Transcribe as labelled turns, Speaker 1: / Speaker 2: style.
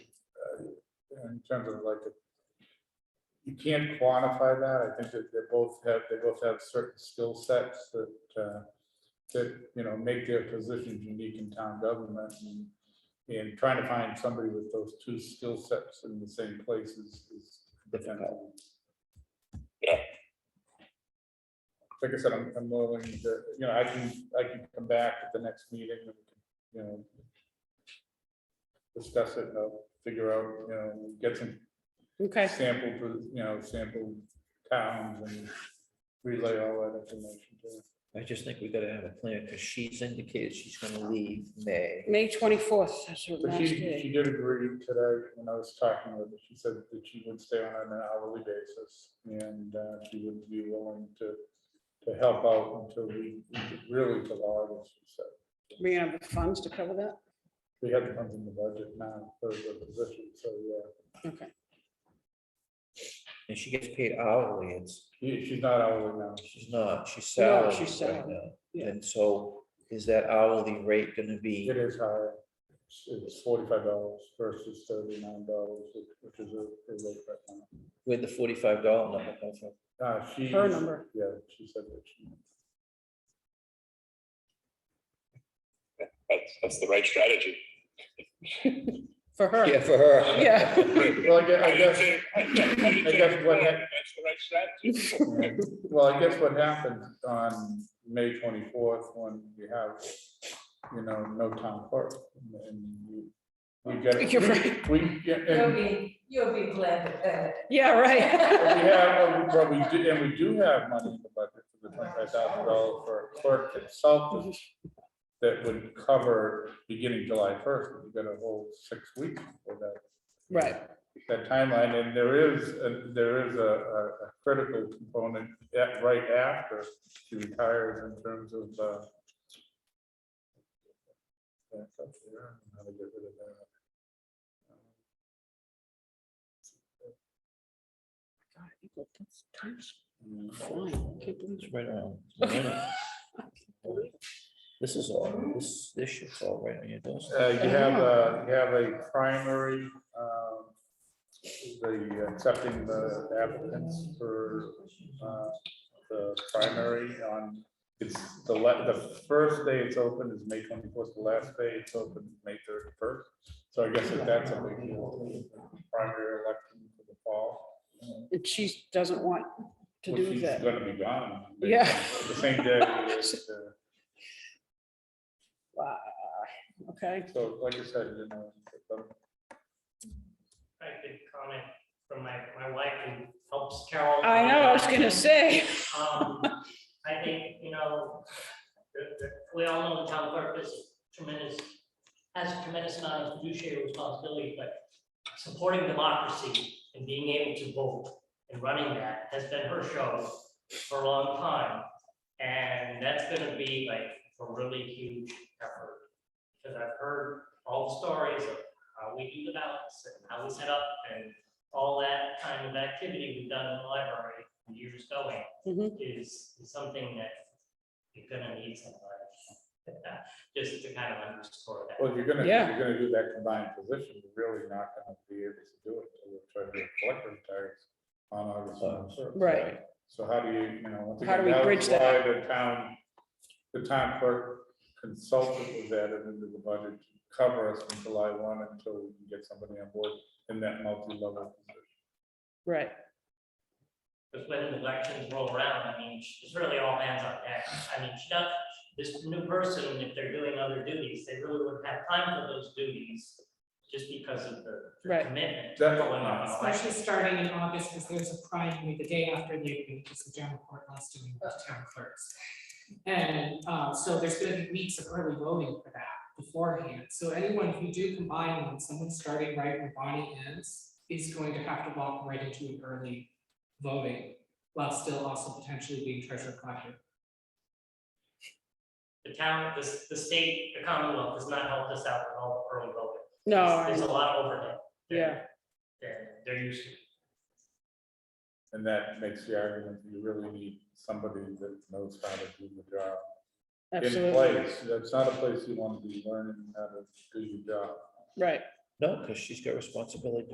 Speaker 1: in terms of like, the- you can't quantify that. I think that they both have, they both have certain skill sets that, uh, that, you know, make their positions unique in town government. and- And trying to find somebody with those two skill sets in the same place is, is difficult.
Speaker 2: Yeah.
Speaker 1: Like I said, I'm, I'm willing to, you know, I can, I can come back at the next meeting, and you know, discuss it, and I'll figure out, you know, get some
Speaker 3: Okay,
Speaker 1: sample, pro- you know, sample towns and relay all that information to her.
Speaker 2: I just think we gotta have a plan, because she's indicated she's gonna leave May.
Speaker 3: May twenty-fourth, that's her
Speaker 1: But
Speaker 3: last
Speaker 1: she,
Speaker 3: day.
Speaker 1: she did agree today when I was talking with her, she said that she would stay on an hourly basis and uh, she would be willing to, to help out until we, really till August, she said.
Speaker 3: We have the funds to cover that?
Speaker 1: We have to come in the budget now for the position, so yeah,
Speaker 3: Okay,
Speaker 2: And she gets paid hourly, it's,
Speaker 1: She- she's not hourly now.
Speaker 2: she's not, she's
Speaker 3: No,
Speaker 2: salaried
Speaker 3: she's
Speaker 2: right
Speaker 3: salaried,
Speaker 2: now.
Speaker 3: yeah.
Speaker 2: And so is that hourly rate gonna be,
Speaker 1: It is higher. It's- It's forty-five dollars versus thirty-nine dollars, which is a, a rate right now.
Speaker 2: where'd the forty-five dollar number come from?
Speaker 1: Uh, she.
Speaker 3: her number.
Speaker 1: Yeah, she said that she.
Speaker 4: That's, that's the right strategy.
Speaker 3: For her.
Speaker 2: for her.
Speaker 3: Yeah.
Speaker 1: Well, I guess, I guess, I guess what hap-
Speaker 4: That's the right strategy.
Speaker 1: well, I guess what happened on May twenty-fourth, when we have, you know, no town clerk, and- and you, we get,
Speaker 3: You're right.
Speaker 1: we, get-
Speaker 5: You'll
Speaker 1: and
Speaker 5: be, you'll be glad to hear
Speaker 3: Yeah, right.
Speaker 1: we have, but we do, and we do have money in the budget for the twenty-five thousand dollars for a clerk consultant that would cover beginning July first, we've got a whole six weeks for that.
Speaker 3: Right,
Speaker 1: that timeline, and there is, a- there is a, a a critical component at, right after she retires in terms of, uh, that's up there, how to get rid of that.
Speaker 3: fine, can't believe
Speaker 2: It's right on. it's right on. This is all, this, this shit's all right on your doorstep.
Speaker 1: Uh, you have, uh, you have a primary, um, the accepting the applicants for, uh, the primary on, it's the le, the first day it's open is May twenty-fourth, the last day it's open is May thirty-first. So I guess that that's a big deal, primary election for the fall.
Speaker 3: and she doesn't want to
Speaker 1: which
Speaker 3: do
Speaker 1: she's
Speaker 3: that.
Speaker 1: Gonna be gone.
Speaker 3: Yeah.
Speaker 1: The same day. as, uh,
Speaker 3: Wow, okay,
Speaker 1: So like I said, you know, I'm
Speaker 6: I could comment from my, my wife who helps Carol.
Speaker 3: I know, I was gonna say,
Speaker 6: Um, I think, you know, the- the- we all know the town clerk is tremendous, has a tremendous amount of fiduciary responsibility, but supporting democracy and being able to vote and running that has been her show for a long time. And that's gonna be like a really huge effort. Because I've heard all the stories of how we do the ballots and how we set up and all that kind of activity we've done in the library years going
Speaker 3: Mhm.
Speaker 6: is is something that you're gonna need somebody. Just to kind of underscore that.
Speaker 1: Well, if you're gonna, if
Speaker 3: Yeah.
Speaker 1: you're gonna do that combined position, you're really not gonna be able to do it till the treasurer collector retires on August first.
Speaker 3: right,
Speaker 1: So how do you, you know, once
Speaker 3: How do
Speaker 1: again,
Speaker 3: we
Speaker 1: that
Speaker 3: bridge
Speaker 1: was
Speaker 3: that?
Speaker 1: why the town, the town clerk consultant was added into the budget to cover us from July one until we can get somebody on board in that multi-level. position.
Speaker 3: right.
Speaker 6: Because when the elections roll around, I mean, it's really all hands on deck. I mean, she does, this new person, if they're doing other duties, they really wouldn't have time for those duties just because of the the
Speaker 3: Right.
Speaker 6: commitment. to
Speaker 1: Definitely.
Speaker 6: going on an election.
Speaker 7: Especially starting in August, because there's a primary the day after Labor Day, because the general court wants to meet with town clerks. And uh, so there's gonna be weeks of early voting for that beforehand. So anyone, if you do combine them, someone starting right when Bonnie ends is going to have to walk right into an early voting while still also potentially being treasurer collector.
Speaker 6: The town, the, the state, the Commonwealth does not help us out with all the early voting.
Speaker 3: No,
Speaker 6: There's-
Speaker 3: Oh, I
Speaker 6: There's a
Speaker 3: know.
Speaker 6: lot of overhead. than-
Speaker 3: Yeah.
Speaker 6: than they're used to.
Speaker 1: And that makes the argument, you really need somebody that knows how to do the job. in
Speaker 3: absolutely,
Speaker 1: place. That's not a place you want to be learning how to do your job.
Speaker 3: right.
Speaker 2: No, because she's got responsibility